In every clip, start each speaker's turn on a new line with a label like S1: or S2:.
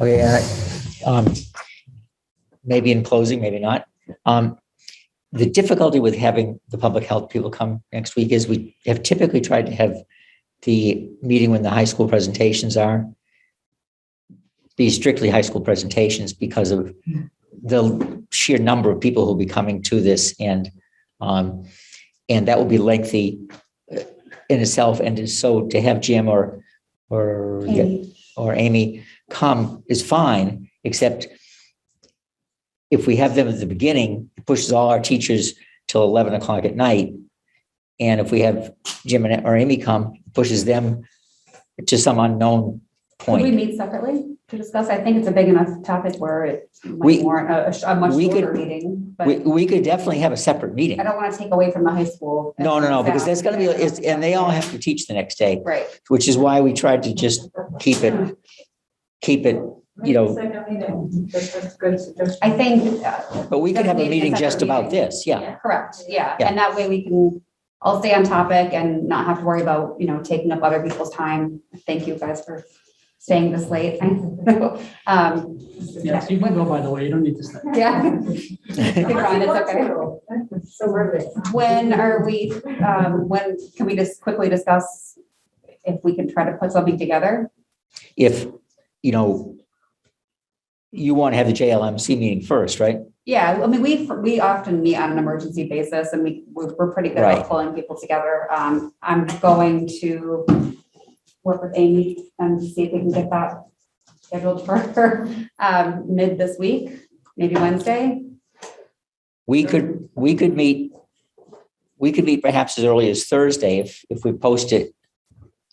S1: Okay, uh, um, maybe in closing, maybe not. Um, the difficulty with having the public health people come next week is we have typically tried to have the meeting when the high school presentations are be strictly high school presentations because of the sheer number of people who'll be coming to this and um, and that will be lengthy uh, in itself. And so to have Jim or or
S2: Amy.
S1: or Amy come is fine, except if we have them at the beginning, it pushes all our teachers till 11 o'clock at night. And if we have Jim and or Amy come, it pushes them to some unknown
S2: Could we
S1: point.
S2: meet separately to discuss? I think it's a big enough topic where it
S1: We-
S2: might warrant a- a, sh- a much
S1: we could-
S2: shorter meeting,
S1: We,
S2: but
S1: we could definitely have a separate meeting.
S2: I don't want to take away from the high school.
S1: No, no, no, because that's gonna be,
S2: Staff.
S1: it's- and they all have to teach the next day,
S2: Right.
S1: which is why we tried to just keep it, keep it, you know-
S3: That's that's good suggestion.
S2: I think, uh,
S1: but we could have a meeting just about this, yeah.
S2: correct, yeah.
S1: Yeah.
S2: And that way we can all stay on topic and not have to worry about, you know, taking up other people's time. Thank you guys for staying this late. Um,
S4: Yes, you can go, by the way, you don't need to stay.
S2: Yeah,
S3: Unless you
S2: Ron, it's
S3: want
S2: okay.
S3: to. That's So worth it.
S2: when are we, um, when, can we just quickly discuss if we can try to put something together?
S1: If, you know, you want to have the JLMC meeting first, right?
S2: Yeah, I mean, we, we often meet on an emergency basis and we, we're we're pretty good
S1: Right.
S2: at pulling people together. Um, I'm going to work with Amy and see if we can get that scheduled for, um, mid this week, maybe Wednesday.
S1: We could, we could meet, we could meet perhaps as early as Thursday if, if we post it.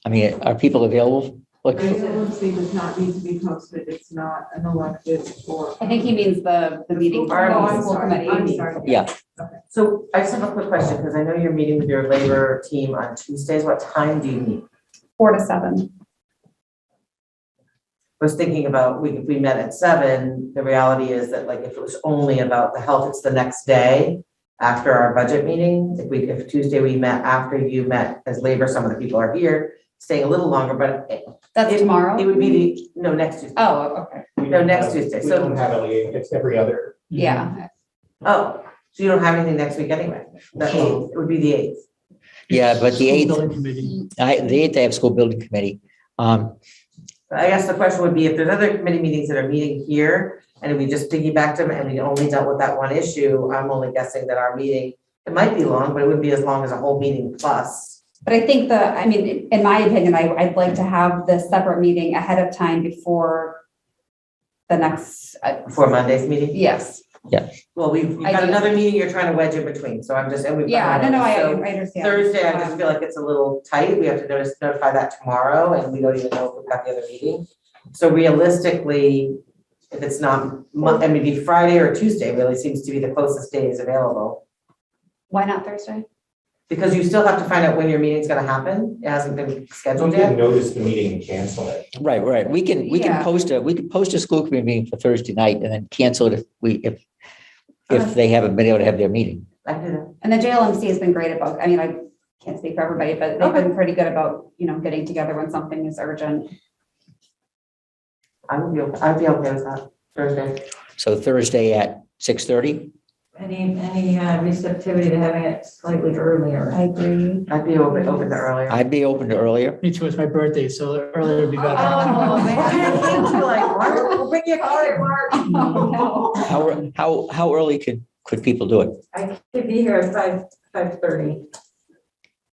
S1: I mean, are people available? Like,
S3: Residency does not need to be posted. It's not an elected or.
S2: I think he means the, the meeting.
S3: Oh, I'm
S2: School
S3: sorry, I'm
S2: committee.
S3: sorry.
S1: Yeah.
S3: Okay.
S5: So I just have a quick question, because I know you're meeting with your labor team on Tuesdays. What time do you meet?
S2: Four to seven.
S5: I was thinking about, we, if we met at seven, the reality is that like, if it was only about the health, it's the next day after our budget meeting. If we, if Tuesday we met after you met as labor, some of the people are here, staying a little longer, but it-
S2: That's tomorrow.
S5: it would be the, no, next Tuesday.
S2: Oh, okay.
S6: We
S5: No,
S6: don't
S5: next
S6: have-
S5: Tuesday,
S6: We
S5: so-
S6: don't have any, it's every other.
S2: Yeah.
S5: Oh, so you don't have anything next week anyway? The eighth, it would be the eighth.
S1: yeah, but the eighth,
S4: Building committee.
S1: I, the eighth, I have school building committee. Um,
S5: I guess the question would be, if there's other committee meetings that are meeting here, and we just piggybacked them, and we only dealt with that one issue, I'm only guessing that our meeting, it might be long, but it wouldn't be as long as a whole meeting plus.
S2: But I think the, I mean, in my opinion, I, I'd like to have the separate meeting ahead of time before the next, uh,
S5: Before Monday's meeting?
S2: yes.
S5: Well, we've, you've got
S2: Ideally.
S5: another meeting you're trying to wedge in between, so I'm just, and we've. got
S2: Yeah, no, no, I,
S5: another.
S2: I
S5: So
S2: understand.
S5: Thursday, I just
S2: Um,
S5: feel like it's a little tight, we have to notice, notify that tomorrow, and we don't even know if we've got the other meeting. So realistically, if it's not, Mon- I mean, it'd be Friday or Tuesday really seems to be the closest days available.
S2: Why not Thursday?
S5: Because you still have to find out when your meeting's gonna happen, it hasn't been
S6: We
S5: scheduled
S6: didn't
S5: yet.
S6: notice the meeting and cancel it.
S1: right, right. We can, we can
S2: Yeah.
S1: post a, we can post a school committee meeting for Thursday night and then cancel it if we, if, if they haven't been able to have their meeting.
S5: I can do that.
S2: And the JLMC has been great about, I mean, I can't speak for everybody, but they've been pretty good about, you know, getting together when something is urgent.
S5: I would be, okay- I'd be okay with that, Thursday.
S1: So Thursday at six thirty?
S3: Any, any uh, receptivity to having it slightly earlier?
S2: agree.
S5: I'd be open, open to earlier.
S1: I'd be open to earlier.
S4: Me too, it's my birthday, so earlier would be better.
S2: Oh, man.
S5: Like, "Mark, we'll bring you a card, Mark."
S1: How, ear- how, how early could, could people do it?
S3: I could be here at five, five thirty.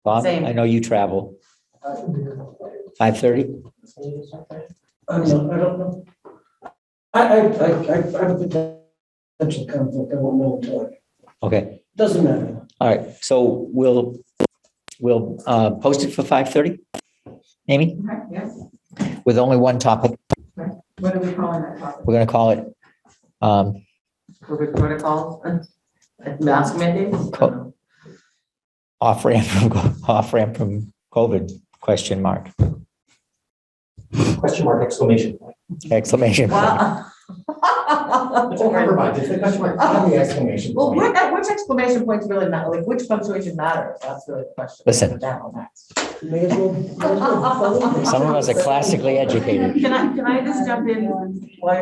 S1: Bob,
S5: Same.
S1: I know you travel. Five thirty?
S7: I don't, I don't know. I, I, I, I I have a potential conflict, I won't know until, I-
S1: Okay,
S7: doesn't matter.
S1: all right. So we'll, we'll uh, post it for five thirty? Amy,
S3: Yes,
S1: with only one topic,
S3: what are we calling that topic?
S1: we're gonna call it. um,
S5: COVID protocols, uh, mask mandates.
S1: Co- Off ramp from, off ramp from COVID, question mark,
S6: Question mark, exclamation point.
S1: exclamation. point.
S5: Wow.
S6: It's a never mind, it's a question mark, not the exclamation
S5: Well,
S6: point.
S5: what, which exclamation points really matter, like, which punctuation matters, that's really the question.
S1: Listen.
S5: That one matters.
S6: May as well. may as well follow this.
S1: Some of us are classically educated.
S5: Can I, can I just jump in while